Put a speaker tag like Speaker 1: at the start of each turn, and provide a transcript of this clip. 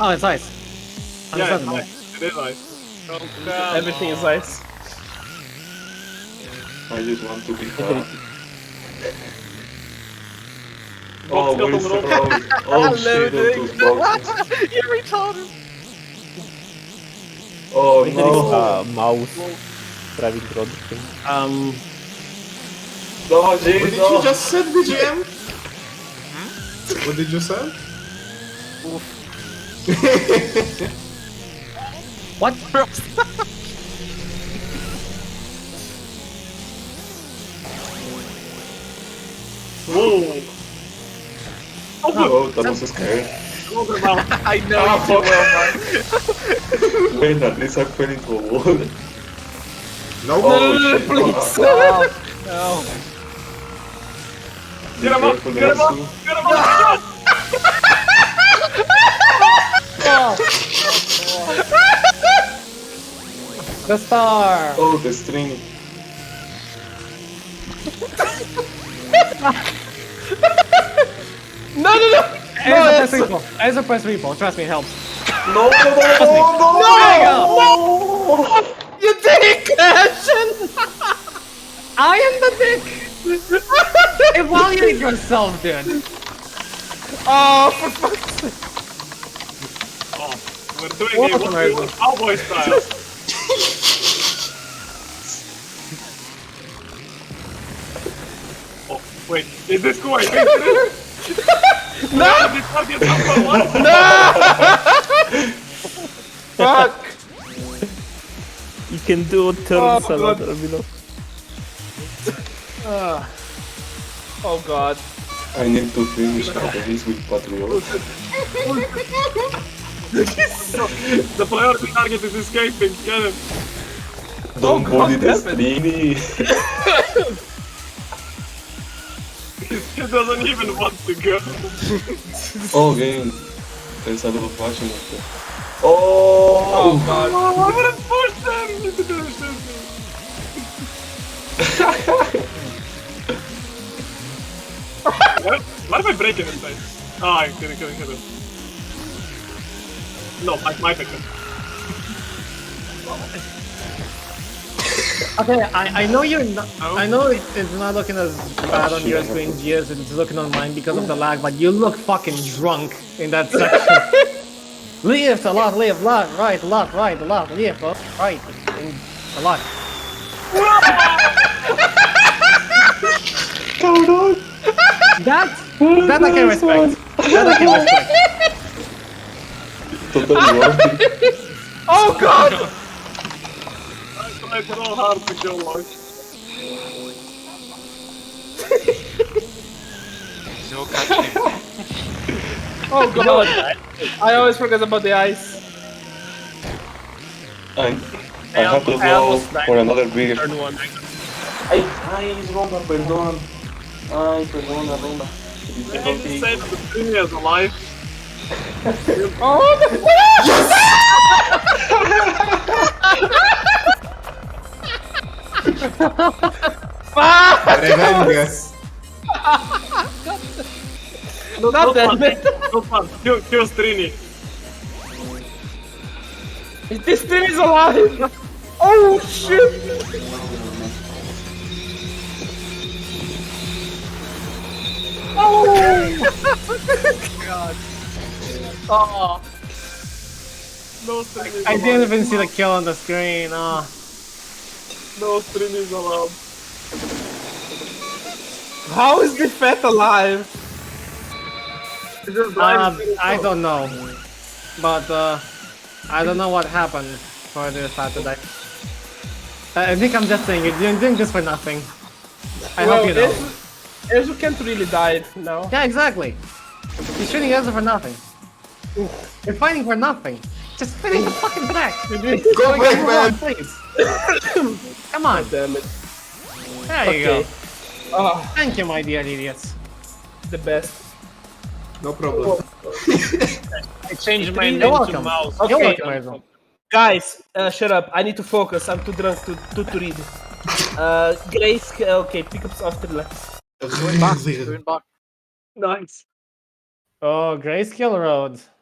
Speaker 1: Oh, it's ice. I'm
Speaker 2: Yeah, it's
Speaker 1: seven.
Speaker 2: ice. It is ice. Oh, come
Speaker 3: Everything is ice.
Speaker 4: I just want to be fast.
Speaker 2: Box
Speaker 4: oh,
Speaker 2: got
Speaker 4: where is
Speaker 2: a
Speaker 4: the
Speaker 2: little-
Speaker 4: road? Oh shit, those two boxes.
Speaker 1: You're retarded.
Speaker 4: Oh no.
Speaker 3: Uh, mouse. Driving road thing.
Speaker 1: Um,
Speaker 4: No, James,
Speaker 2: What did you
Speaker 4: no.
Speaker 2: just said, BGM? What did you say?
Speaker 1: what?
Speaker 2: Whoa!
Speaker 4: Oh, that was scary.
Speaker 1: I know.
Speaker 4: Ah, fuck. Wait, at least I fell into a wall.
Speaker 2: No,
Speaker 4: Oh, shit.
Speaker 1: No.
Speaker 4: Be
Speaker 2: Get him up!
Speaker 4: careful,
Speaker 2: Get him up!
Speaker 4: Yasu.
Speaker 2: Get him up!
Speaker 1: The star.
Speaker 4: Oh, the string.
Speaker 3: No, no, no!
Speaker 1: As a press repo. As a press repo. Trust me, it helps.
Speaker 4: No, no, no, no, no!
Speaker 1: There you go.
Speaker 4: Oh,
Speaker 3: You dick!
Speaker 1: I am the dick. Evaluate yourself, dude.
Speaker 3: Oh, for fuck's
Speaker 2: Oh, we're doing it. We're doing cowboy style. oh, wait. Is this going?
Speaker 3: No!
Speaker 2: This target number one?
Speaker 3: Fuck! You can do turn
Speaker 2: Oh,
Speaker 3: salad,
Speaker 2: God.
Speaker 3: Ramiro. Oh god.
Speaker 4: I need to finish at least with Patriot.
Speaker 3: Oh,
Speaker 2: The priority target is escaping. Get him.
Speaker 4: Don't
Speaker 3: God,
Speaker 4: bully the
Speaker 3: damn it.
Speaker 4: string.
Speaker 2: He doesn't even want to go.
Speaker 4: Oh, game. There's a lot of passion up there. Oh!
Speaker 3: god.
Speaker 2: Oh, I'm gonna push them into the shooting. what? What if I break it inside? Oh, I'm kidding, kidding, kidding. No, my, my picture.
Speaker 1: Okay, I, I know you're not.
Speaker 2: Oh.
Speaker 1: I know it, it's not looking as bad on
Speaker 4: shit,
Speaker 1: your
Speaker 4: I
Speaker 1: screen,
Speaker 4: have
Speaker 1: Gears, it's looking on mine because of the lag, but you look fucking drunk in that section. left, a lot, left, lot, right, lot, right, lot, left, up, right, and a lot.
Speaker 4: Hold on!
Speaker 1: That, that I can respect. That I can respect.
Speaker 4: Totally wrong.
Speaker 3: Oh god!
Speaker 2: I tried so hard to go long.
Speaker 5: No catching.
Speaker 3: Oh god! I always forget about the ice.
Speaker 4: I, I have to
Speaker 3: I
Speaker 4: go
Speaker 3: almost died.
Speaker 4: for another beer.
Speaker 3: Turn one.
Speaker 4: Ay, ay, es Ronda, perdón. Ay, perdona, Ronda.
Speaker 2: If you say that the thing is alive,
Speaker 3: Oh no!
Speaker 2: Revengas.
Speaker 3: No, not that bad.
Speaker 2: No fun. Kill, kill Strini.
Speaker 3: This thing is alive! Oh shit!
Speaker 1: Oh,
Speaker 2: No Strini.
Speaker 1: I didn't even see the kill on the screen. Oh.
Speaker 2: No Strini is allowed.
Speaker 3: How is the fat alive?
Speaker 2: It's just
Speaker 1: Uh,
Speaker 2: blind.
Speaker 1: I don't know, but uh, I don't know what happened for this Saturday. Uh, I I think I'm just saying it. You're doing this for nothing. I
Speaker 3: well,
Speaker 1: hope you know.
Speaker 3: Ezio- Ezio can't really die now.
Speaker 1: Yeah, exactly. You're shooting us for nothing. You're fighting for nothing. Just finish the fucking back. Go back, man. Please. Come on.
Speaker 3: Damn it.
Speaker 1: There you
Speaker 3: Okay.
Speaker 1: go.
Speaker 3: Ah,
Speaker 1: Thank you, my dear idiots.
Speaker 3: the best.
Speaker 2: No problem.
Speaker 3: I changed
Speaker 1: my You're name to welcome. mouse. You're
Speaker 3: Okay.
Speaker 1: welcome, Ezio.
Speaker 3: Guys, uh, shut up. I need to focus. I'm too drunk to, to, to read. Uh, Grace, okay, pickups after left.
Speaker 1: Nice. Oh, Grayscale Road.